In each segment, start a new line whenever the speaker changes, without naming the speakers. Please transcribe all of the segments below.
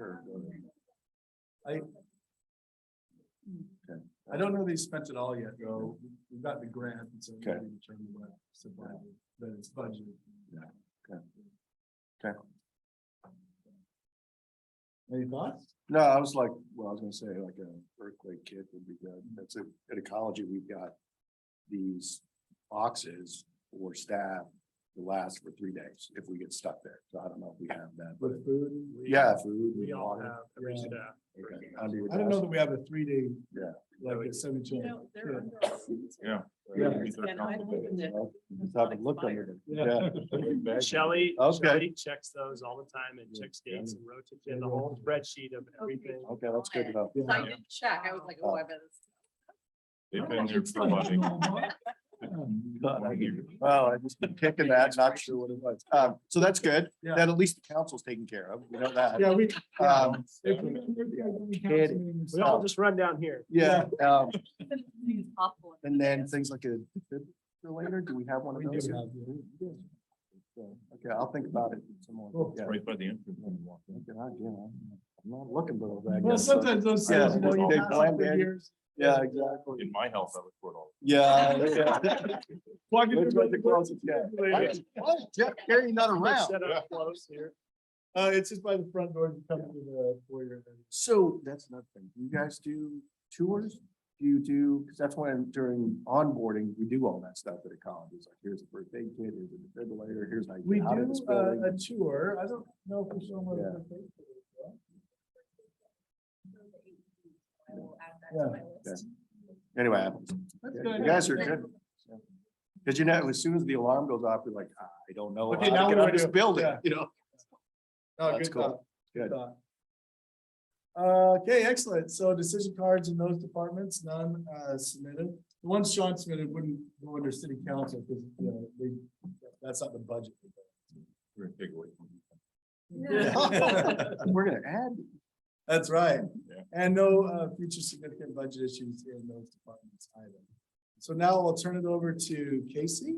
or? I. Okay. I don't know they spent it all yet, though. We've got the grant, and so. we
Okay.
can determine what supply, That it's budgeted.
Yeah. Okay. Okay.
Any thoughts?
No, I was like, well, I was gonna say like a earthquake kit would be good. That's it. At ecology, we've got these boxes for staff to last for three days if we get stuck there. So I don't know if we have that, but
With food? we-
yeah, food.
We all
water,
have, every
Yeah.
staff.
okay, under your
I don't know
desk.
that we have a three day.
Yeah.
Like a seven two.
No,
Yeah.
they're under our seats.
Yeah.
Yeah.
And I don't even know.
Well, you Just haven't looked under them. Yeah.
Shelley,
Okay.
Shelley checks those all the time and
Yeah.
checks dates and rotates in the whole spreadsheet of everything.
Okay, that's good enough.
So I did check, I was like, oh, I Oh, bet it's.
They've been here for like.
God, I hear you. Well, I just been kicking that, not sure what it was. Um, so that's good.
Yeah.
That at least the council's taken care of. We know that.
Yeah, we.
Um,
if we- if we have any council
Katie.
meetings-
We all just run down here.
yeah, um,
It's awful.
And then things like a defibrillator, do we have one
We
of
do
those?
have, yeah.
Okay, I'll think about it some more.
Cool.
Yeah.
Right by the entrance when you walk in.
Good idea. I'm not looking for those. I
Well,
guess, but-
sometimes those
Yeah,
things, you know,
they
you pass them for
blend in.
years.
Yeah, exactly.
In my health, I look for it all.
Yeah. yeah.
Plug it in
That's what the
with-
closet, yeah. Why is- why is Jeff Carey not around.
Set up close here.
Uh, it's just by the front door, you come to the foyer.
So that's another thing. Do You
Mm-hmm.
guys do tours? Do you do, because that's when during onboarding, we do all that stuff at a college. It's like, here's a first aid kit, here's a defibrillator, here's how you
We
get out of this
do uh, a
building.
tour. I don't know if we're showing what.
Yeah.
we're paying for this, right?
I will add that to my list.
Anyway,
That's
Yeah,
good.
you guys are good. Because you know, as soon as the alarm goes off, you're like, "Ah, I don't know.
Okay,
how
now
to get out
what do
of this
I do?"
building,
Yeah.
you know?
Oh,
That's
good
cool.
thought.
Good.
thought. Uh, Okay, excellent. So decision cards in those departments, none uh, submitted. The ones Sean submitted wouldn't go under city council because, you know, they, that's not the budget.
We're gonna take away from you.
Yeah.
We're gonna add,
That's right.
Yeah.
And no uh, future significant budget issues in those departments either. So now I'll turn it over to Casey.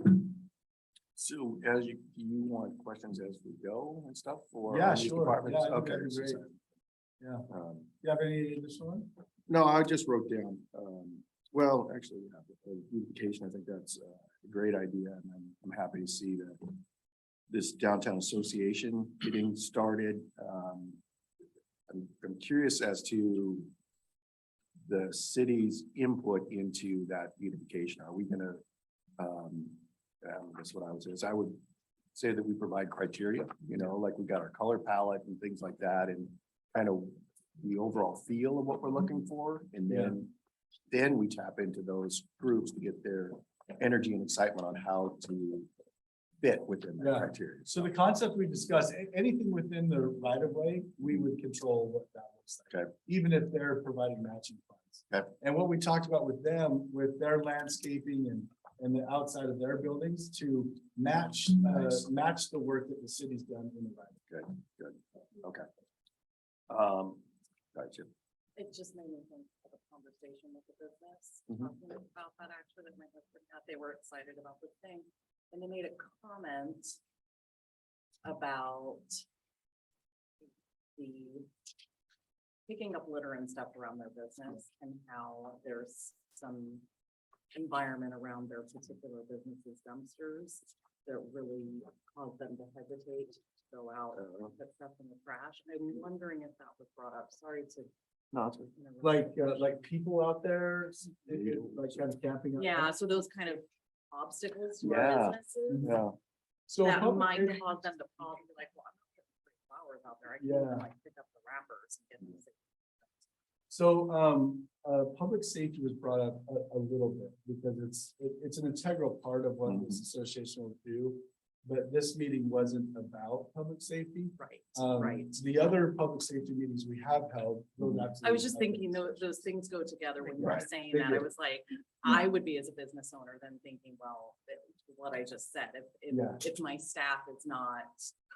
so as you, do you want questions as we go and stuff for?
Yeah,
on these
sure.
departments?
Yeah, I think
Okay.
that'd be great. Yeah.
Um,
You have any additional one?
No, I just wrote down, um, well, actually, yeah, the- the beautification, I think that's uh, a great idea, and I'm, I'm happy to see that this downtown association getting started, um, I'm, I'm curious as to the city's input into that beautification, are we gonna, um, um, that's what I would say, is I would say that we provide criteria, you know, like we got our color palette and things like that, and kind of the overall feel of what we're looking for, and
Yeah.
then, then we tap into those groups to get their energy and excitement on how to fit within that
Yeah.
criteria.
So the concept we discussed, a- anything within the right of way, we would control what that looks like.
Okay.
Even if they're providing matching funds.
Okay.
And what we talked about with them, with their landscaping and, and the outside of their buildings to match, uh,
Nice.
match the work that the city's done in the right. of
Um, gotcha.
It just made me think of a conversation with the business,
Mhm.
talking about that actually, that my husband had, they were excited about the thing. And they made a comment about the picking up litter and stuff around their business and how there's some environment around their particular business's dumpsters that really caused them to hesitate to go out and
Uh,
put stuff in the trash. And I'm wondering if that was brought up. Sorry to
No, it's-
interrupt.
Like, uh, like people out there, s- it- it- like kind of camping. out there.
Yeah, so those kind of obstacles to
Yeah. Mm-hmm.
our businesses,
yeah.
So.
that
public-
might cause them to probably be like, well, I'm not gonna put flowers out there, I can
Yeah.
even, like pick up the wrappers and get these.
So, um, uh, public safety was brought up a, a little bit because it's, it, it's an integral part of what this
Mm-hmm.
association will do. But this meeting wasn't about public safety.
Right,
Um,
right. Mm-hmm.
The other public safety meetings we have held. those
I was just
absolutely
thinking
have
those,
been.
those things go together when you were
Right,
saying
they
that. I
do. Hmm.
was like, I would be as a business owner then thinking, well, that- what I just said, if,
Yeah.
if, if my staff is not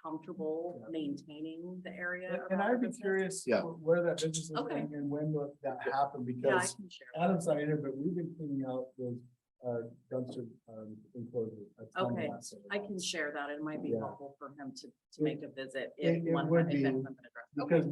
comfortable
Yeah.
maintaining the area.
And- And
around
I'd
the
be
business,
curious.
Yeah.
wh- Where that business is
Okay.
and and when will that happened
Yeah, I
because
can share.
Adam's not here, but we've been cleaning out those, uh, dumpster, um, enclosures. a ton the
Okay,
last several
I
months.
can share that. It might be
Yeah.
helpful for him to, to
It-
make a visit
it-
if
it
one,
would
if that's
be,
something addressed. Okay.
Because